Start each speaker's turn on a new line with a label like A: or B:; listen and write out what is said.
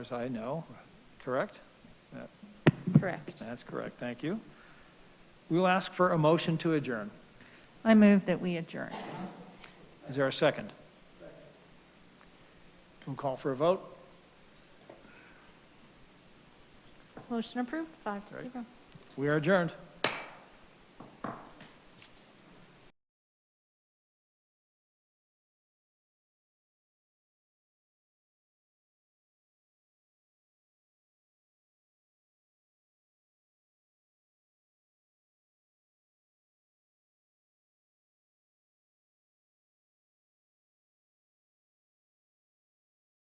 A: as I know, correct? That-
B: Correct.
A: That's correct, thank you. We will ask for a motion to adjourn.
B: I move that we adjourn.
A: Is there a second? We'll call for a vote.
C: Motion approved, five to
A: Right.
C: zero.
A: We are adjourned.